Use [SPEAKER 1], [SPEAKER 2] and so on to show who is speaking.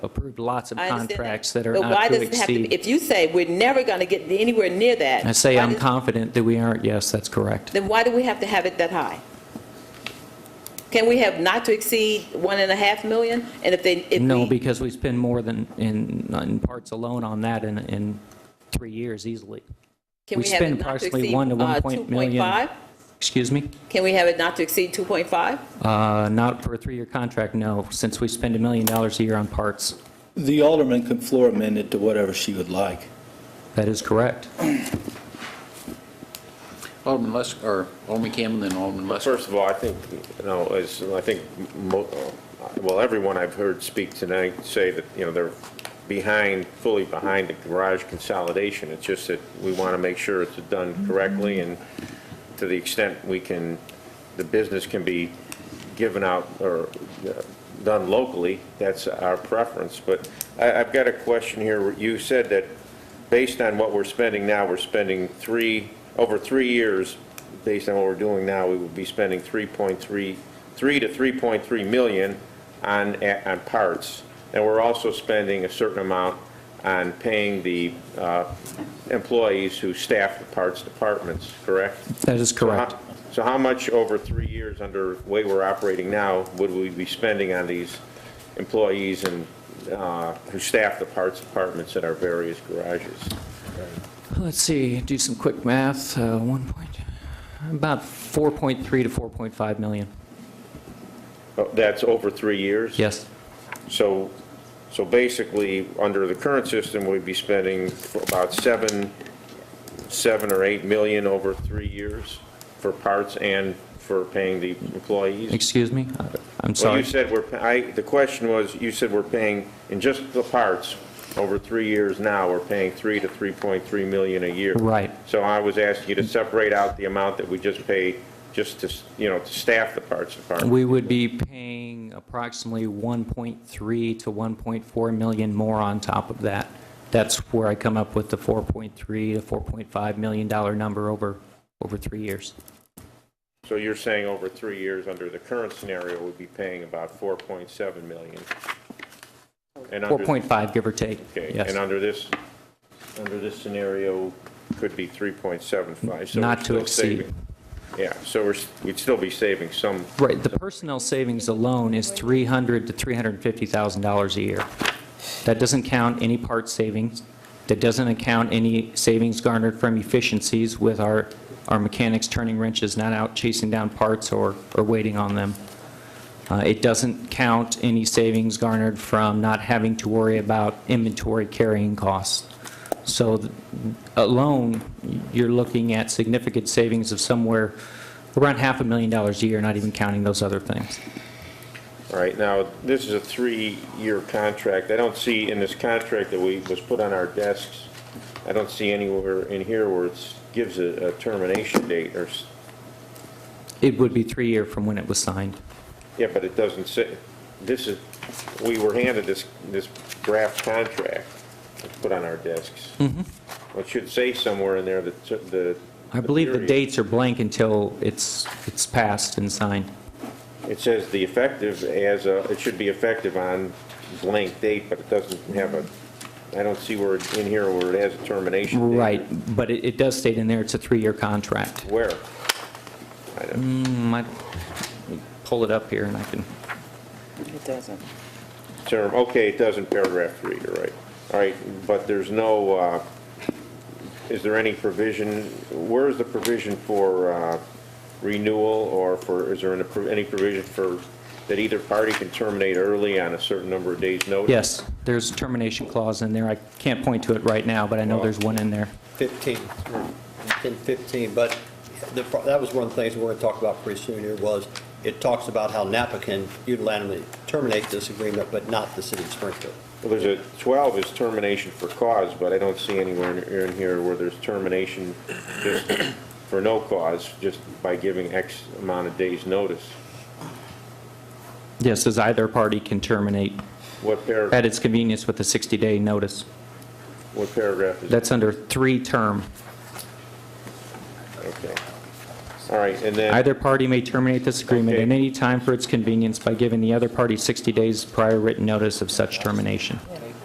[SPEAKER 1] approved lots of
[SPEAKER 2] I understand that.
[SPEAKER 1] contracts that are
[SPEAKER 2] But why
[SPEAKER 1] not to
[SPEAKER 2] does it have be-
[SPEAKER 1] exceed.
[SPEAKER 2] If you say we're never going to get anywhere near that.
[SPEAKER 1] I say
[SPEAKER 2] why
[SPEAKER 1] I'm
[SPEAKER 2] does-
[SPEAKER 1] confident that we aren't, yes, that's correct.
[SPEAKER 2] Then why do we have to have it that high? Can we have not to exceed one and a half million? And if they, if
[SPEAKER 1] No,
[SPEAKER 2] we,
[SPEAKER 1] because we spend more than, in, in parts alone on that in, in three years easily.
[SPEAKER 2] can
[SPEAKER 1] we
[SPEAKER 2] we have
[SPEAKER 1] spend
[SPEAKER 2] it not to
[SPEAKER 1] approximately
[SPEAKER 2] exceed
[SPEAKER 1] one to one
[SPEAKER 2] uh,
[SPEAKER 1] point million.
[SPEAKER 2] 2.5?
[SPEAKER 1] Excuse me?
[SPEAKER 2] Can we have it not to exceed 2.5?
[SPEAKER 1] Uh, Not for a three-year contract, no, since we spend a million dollars a year on parts.
[SPEAKER 3] The alderman can floor amend it to whatever she would like.
[SPEAKER 1] That is correct.
[SPEAKER 4] Alderman Lester, or Alderman Campbell, then Alderman Lester.
[SPEAKER 5] First of all, I think, you know, as, I think, mo- well, everyone I've heard speak tonight say that, you know, they're behind, fully behind the garage consolidation. It's just that we want to make sure it's done correctly, and to the extent we can, the business can be given out or uh, done locally, that's our preference. But I, I've got a question here. You said that based on what we're spending now, we're spending three, over three years, based on what we're doing now, we would be spending 3.3, 3 to 3.3 million on, on parts. And we're also spending a certain amount on paying the uh, employees who staff the parts departments, correct?
[SPEAKER 1] That is
[SPEAKER 5] So how-
[SPEAKER 1] correct.
[SPEAKER 5] So how much over three years under the way we're operating now would we be spending on these employees and, uh, who staff the parts departments at our various garages?
[SPEAKER 1] Let's see, do some quick math, Uh, one point, about 4.3 to 4.5 million.
[SPEAKER 5] Oh, That's over three years?
[SPEAKER 1] Yes,
[SPEAKER 5] So, so basically, under the current system, we'd be spending about seven, seven or eight million over three years for parts and for paying the employees?
[SPEAKER 1] excuse me? I'm
[SPEAKER 5] Well,
[SPEAKER 1] sorry.
[SPEAKER 5] you said we're, I, the question was, you said we're paying, in just the parts, over three years now, we're paying 3 to 3.3 million a year.
[SPEAKER 1] Right.
[SPEAKER 5] So I was asking you to separate out the amount that we just pay, just to, you know, to staff the parts department.
[SPEAKER 1] We would be paying approximately 1.3 to 1.4 million more on top of that. That's where I come up with the 4.3 to 4.5 million dollar number over, over three years.
[SPEAKER 5] So you're saying over three years, under the current scenario, we'd be paying about 4.7 million? And under-
[SPEAKER 1] 4.5, give or take.
[SPEAKER 5] Okay,
[SPEAKER 1] Yes.
[SPEAKER 5] and under this, under this scenario, could be 3.75. so
[SPEAKER 1] Not
[SPEAKER 5] we're
[SPEAKER 1] to
[SPEAKER 5] still
[SPEAKER 1] exceed.
[SPEAKER 5] saving- Yeah, so we're, s- we'd still be saving some
[SPEAKER 1] Right, the personnel savings alone is 300 to $350,000 a year. That doesn't count any part savings, that doesn't account any savings garnered from efficiencies with our, our mechanics turning wrenches, not out chasing down parts or, or waiting on them. Uh, It doesn't count any savings garnered from not having to worry about inventory carrying costs. So th- alone, you're looking at significant savings of somewhere around half a million dollars a year, not even counting those other things.
[SPEAKER 5] All right, now, this is a three-year contract. I don't see in this contract that we, was put on our desks, I don't see anywhere in here where it gives a a termination date or, s-
[SPEAKER 1] It would be three year from when it was signed.
[SPEAKER 5] yeah, but it doesn't say, this is, we were handed this, this draft contract that's put on our desks. Well, it should say somewhere in there that t- the.
[SPEAKER 1] Mm-hmm. I believe the
[SPEAKER 5] period.
[SPEAKER 1] dates are blank until it's, it's passed and signed.
[SPEAKER 5] It says the effective as, a- it should be effective on blank date, but it doesn't have a, I don't see where, it- in here where it has a termination date.
[SPEAKER 1] Right, but it, it does state in there it's a three-year contract. Hmm,
[SPEAKER 5] Where? I don't,
[SPEAKER 1] Might pull it up here and I can,
[SPEAKER 2] It doesn't.
[SPEAKER 5] term, okay, it does in paragraph three, you're right. All right, but there's no, uh, is there any provision, where is the provision for uh, renewal or for, is there an appro- any provision for, that either party can terminate early on a certain number of days' notice?
[SPEAKER 1] yes, there's a termination clause in there. I can't point to it right now, but I know there's one in there.
[SPEAKER 6] 15, in 15, but the, pro- that was one of the things we're going to talk about pretty soon here was, it talks about how Napa can unilaterally terminate this agreement, but not the city of Springfield.
[SPEAKER 5] Well, there's a, 12 is termination for cause, but I don't see anywhere in- in here where there's termination just for no cause, just by giving X amount of days' notice.
[SPEAKER 1] Yes, as either party can terminate
[SPEAKER 5] What paragraph,
[SPEAKER 1] at its convenience with a 60-day notice.
[SPEAKER 5] what paragraph is?
[SPEAKER 1] That's under three-term.
[SPEAKER 5] Okay. All right, and then.
[SPEAKER 1] Either party may terminate this agreement at any time for its convenience by giving the other party 60 days prior written notice of such termination.